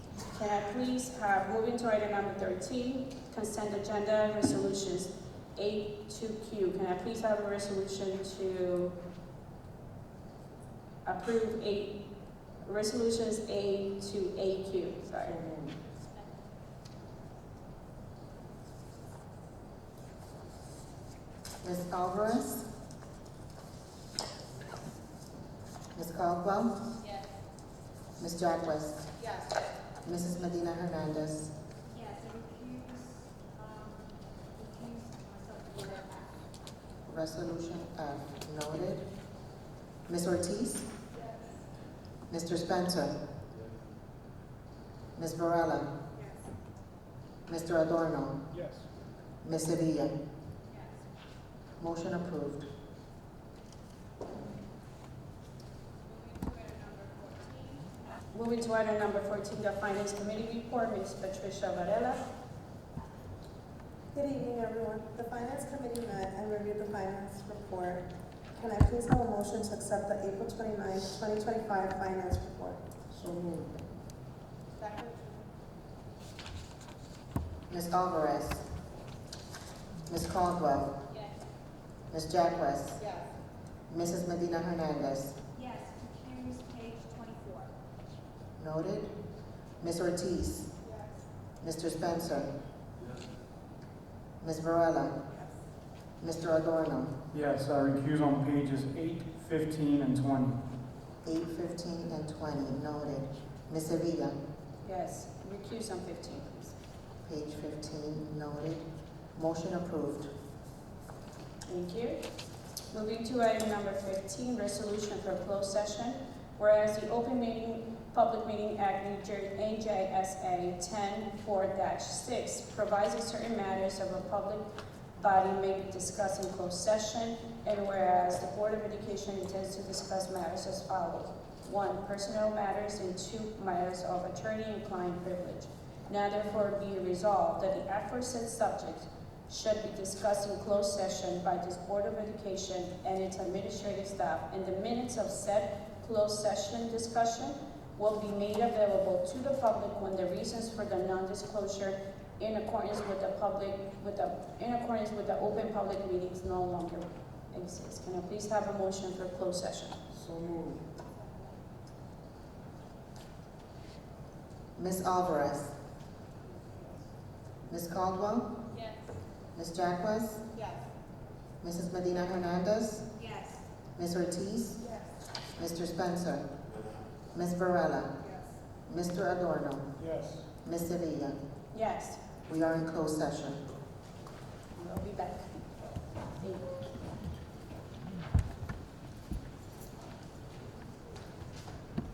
Can I please have, moving to item number thirteen, consent agenda resolutions A to Q. Can I please have a resolution to approve A, resolutions A to AQ, sorry. Ms. Alvarez? Ms. Caldwell? Yes. Ms. Jack West? Yes. Mrs. Medina Hernandez? Yes, I refuse, um, refuse myself to vote aye. Resolution F noted. Ms. Ortiz? Yes. Mr. Spencer? Ms. Varela? Yes. Mr. Adorno? Yes. Ms. Sevilla? Yes. Motion approved. Moving to item number fourteen. Moving to item number fourteen, the Finance Committee report, Ms. Patricia Varela. Good evening, everyone. The Finance Committee met and reviewed the finance report. Can I please have a motion to accept the April 29, 2025 Finance Report? So moved. Second. Ms. Alvarez? Ms. Caldwell? Yes. Ms. Jack West? Yes. Mrs. Medina Hernandez? Yes, refuse page twenty-four. Noted. Ms. Ortiz? Yes. Mr. Spencer? Yes. Ms. Varela? Mr. Adorno? Yes, I recuse on pages eight, fifteen, and twenty. Eight fifteen and twenty, noted. Ms. Sevilla? Yes, recuse on fifteen, please. Page fifteen, noted. Motion approved. Thank you. Moving to item number fifteen, resolution for closed session. Whereas the Open Meeting, Public Meeting Act, New Jersey, NJSA ten four six provides that certain matters of a public body may be discussed in closed session. And whereas the Board of Education intends to discuss matters as follows. One, personnel matters and two, matters of attorney and client privilege. Now therefore be resolved that the aforesaid subjects should be discussed in closed session by this Board of Education and its administrative staff, and the minutes of said closed session discussion will be made available to the public when the reasons for the non-disclosure in accordance with the public, with the, in accordance with the open public meetings no longer exist. Can I please have a motion for closed session? So moved. Ms. Alvarez? Ms. Caldwell? Yes. Ms. Jack West? Yes. Mrs. Medina Hernandez? Yes. Ms. Ortiz? Yes. Mr. Spencer? Ms. Varela? Yes. Mr. Adorno? Yes. Ms. Sevilla? Yes, We are in closed session. we'll be back.